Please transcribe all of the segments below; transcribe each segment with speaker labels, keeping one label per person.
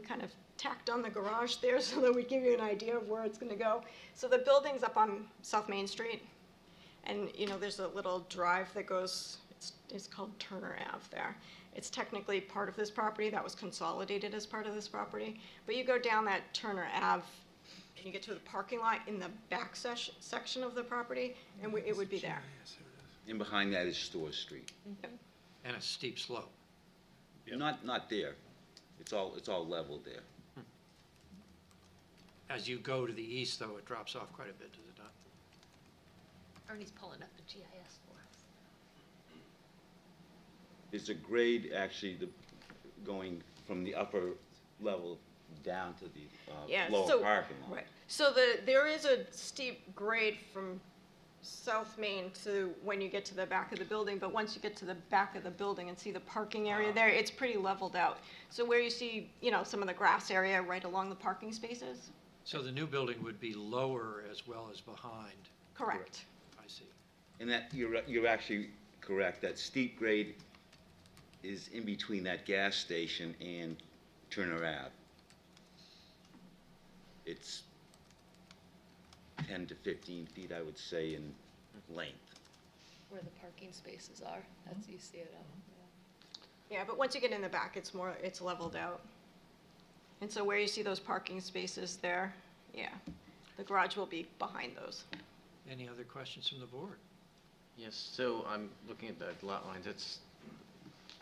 Speaker 1: kind of tacked on the garage there so that we give you an idea of where it's gonna go. So the building's up on South Main Street, and, you know, there's a little drive that goes, it's, it's called Turner Ave there. It's technically part of this property, that was consolidated as part of this property, but you go down that Turner Ave, and you get to the parking lot in the back sesh, section of the property, and we- it would be there.
Speaker 2: And behind that is Store Street.
Speaker 3: And a steep slope.
Speaker 2: Not, not there. It's all, it's all level there.
Speaker 3: As you go to the east, though, it drops off quite a bit, does it not?
Speaker 4: Ernie's pulling up the GIS for us.
Speaker 2: There's a grade actually the, going from the upper level down to the
Speaker 1: Yeah,
Speaker 2: uh, lower
Speaker 1: so-
Speaker 2: parking lot.
Speaker 1: Right, so the, there is a steep grade from South Main to when you get to the back of the building, but once you get to the back of the building and see the parking
Speaker 2: Ah.
Speaker 1: area there, it's pretty leveled out. So where you see, you know, some of the grass area right along the parking spaces,
Speaker 3: So the new building would be lower as well as behind,
Speaker 1: correct.
Speaker 3: I see.
Speaker 2: And that, you're, you're actually correct, that steep grade is in between that gas station and Turner Ave. It's ten to fifteen feet, I would say, in length.
Speaker 4: Where the parking spaces are, that's, you see it on.
Speaker 1: Yeah, but once you get in the back, it's more, it's leveled out. And so where you see those parking spaces there, yeah, the garage will be behind those.
Speaker 3: Any other questions from the board?
Speaker 5: Yes, so I'm looking at the lot lines, it's,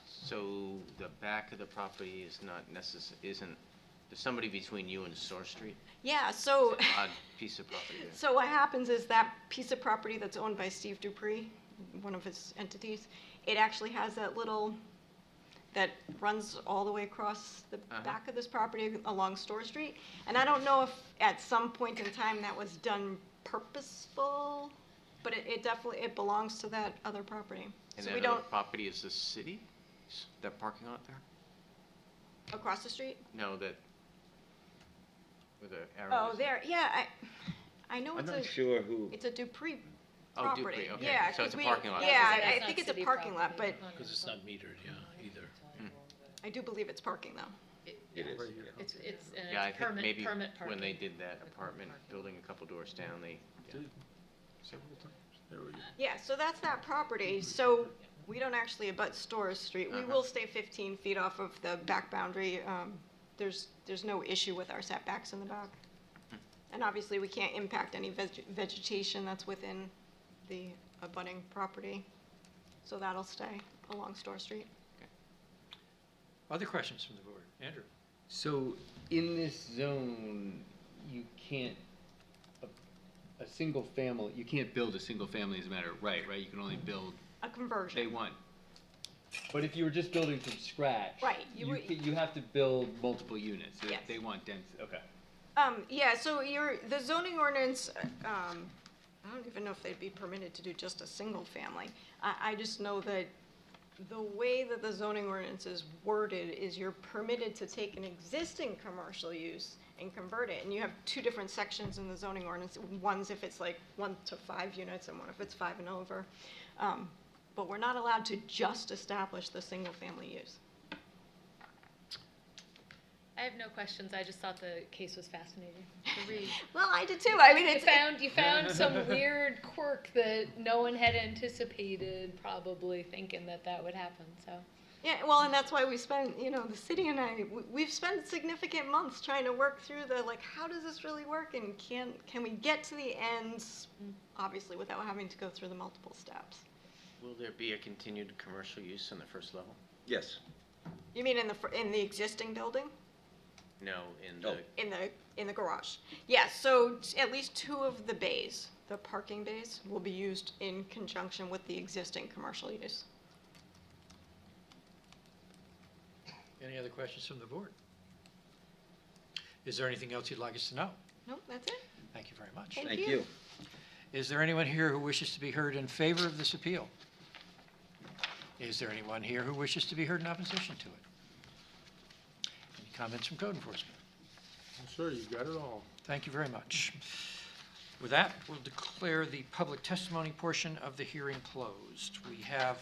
Speaker 5: so the back of the property is not necess, isn't, there's somebody between you and Source Street?
Speaker 1: Yeah, so.
Speaker 5: Odd piece of property there.
Speaker 1: Oh. So what happens is that piece of property that's owned by Steve Dupree, one of his entities, it actually has that little, that runs all the way across the
Speaker 5: Uh-huh.
Speaker 1: back of this property along Store Street. And I don't know if at some point in time that was done purposeful, but it, it definitely, it belongs to that other property.
Speaker 5: And
Speaker 1: So
Speaker 5: that
Speaker 1: we
Speaker 5: other
Speaker 1: don't,
Speaker 5: property is the city, S- that parking lot there?
Speaker 1: across the street?
Speaker 5: No, that, with the arrow
Speaker 1: Oh,
Speaker 5: is.
Speaker 1: there, yeah, I, I know
Speaker 2: I'm
Speaker 1: it's
Speaker 2: not
Speaker 1: a,
Speaker 2: sure who,
Speaker 1: it's a Dupree
Speaker 5: Oh,
Speaker 1: property.
Speaker 5: Dupree, okay.
Speaker 1: Yeah,
Speaker 5: So
Speaker 1: 'cause
Speaker 5: it's a
Speaker 1: we-
Speaker 5: parking lot.
Speaker 1: Yeah,
Speaker 4: That's
Speaker 1: I- I
Speaker 4: not
Speaker 1: think it's a
Speaker 4: city
Speaker 1: parking lot, but
Speaker 4: property.
Speaker 6: Because it's not metered, yeah, either.
Speaker 1: I do believe it's parking though.
Speaker 2: it is.
Speaker 4: Hmm. It's, it's, and
Speaker 5: Yeah, I
Speaker 4: it's
Speaker 5: think
Speaker 4: permit,
Speaker 5: maybe
Speaker 4: permit parking.
Speaker 5: when they did that
Speaker 4: Permit
Speaker 5: apartment
Speaker 4: parking.
Speaker 5: building a couple doors down, they, yeah.
Speaker 6: There we go.
Speaker 1: Yeah, so that's that property, so we don't actually abut Storrs Street. We
Speaker 5: Uh-huh.
Speaker 1: will stay fifteen feet off of the back boundary. Um, There's, there's no issue with our setbacks in the back. And obviously, we can't impact any veg- vegetation that's within the abutting property, so that'll stay along Store Street.
Speaker 3: Other questions from the board? Andrew?
Speaker 7: So in this zone, you can't, a, a single family, you can't build a single family as a matter of right, right? You can only build
Speaker 1: A
Speaker 7: J
Speaker 1: conversion,
Speaker 7: one. But if you were just building from scratch.
Speaker 1: Right, you
Speaker 7: You,
Speaker 1: would-
Speaker 7: ca- you have to build multiple units. They-
Speaker 1: Yes.
Speaker 7: They want density, okay.
Speaker 1: Um, yeah, so your, the zoning ordinance, uh, um, I don't even know if they'd be permitted to do just a single family. I, I just know that the way that the zoning ordinance is worded is you're permitted to take an existing commercial use and convert it, and you have two different sections in the zoning ordinance. One's if it's like one to five units, and one if it's five and over. Um, but we're not allowed to just establish the single-family use.
Speaker 4: I have no questions, I just thought the case was fascinating to read.
Speaker 1: Well, I did too, I mean,
Speaker 4: You
Speaker 1: it's, it-
Speaker 4: found, you found some weird quirk that no one had anticipated, probably thinking that that would happen, so.
Speaker 1: Yeah, well, and that's why we spent, you know, the city and I, we- we've spent significant months trying to work through the, like, how does this really work and can, can we get to the ends, obviously, without having to go through the multiple steps?
Speaker 5: Will there be a continued commercial use in the first level?
Speaker 2: Yes,
Speaker 1: You mean in the, fir- in the existing building?
Speaker 5: No, in
Speaker 2: Oh.
Speaker 5: the
Speaker 1: In the, in the garage? Yes, so t- at least two of the bays, the parking bays, will be used in conjunction with the existing commercial use.
Speaker 3: Any other questions from the board? Is there anything else you'd like us to know?
Speaker 1: Nope, that's it?
Speaker 3: Thank you very much.
Speaker 1: Thank
Speaker 2: thank
Speaker 1: you.
Speaker 2: you.
Speaker 3: Is there anyone here who wishes to be heard in favor of this appeal? Is there anyone here who wishes to be heard in opposition to it? Any comments from code enforcement?
Speaker 6: Sure, you got it all.
Speaker 3: Thank you very much. With that, we'll declare the public testimony portion of the hearing closed. We have,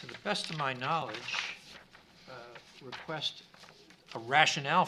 Speaker 3: to the best of my knowledge, uh, request a rationale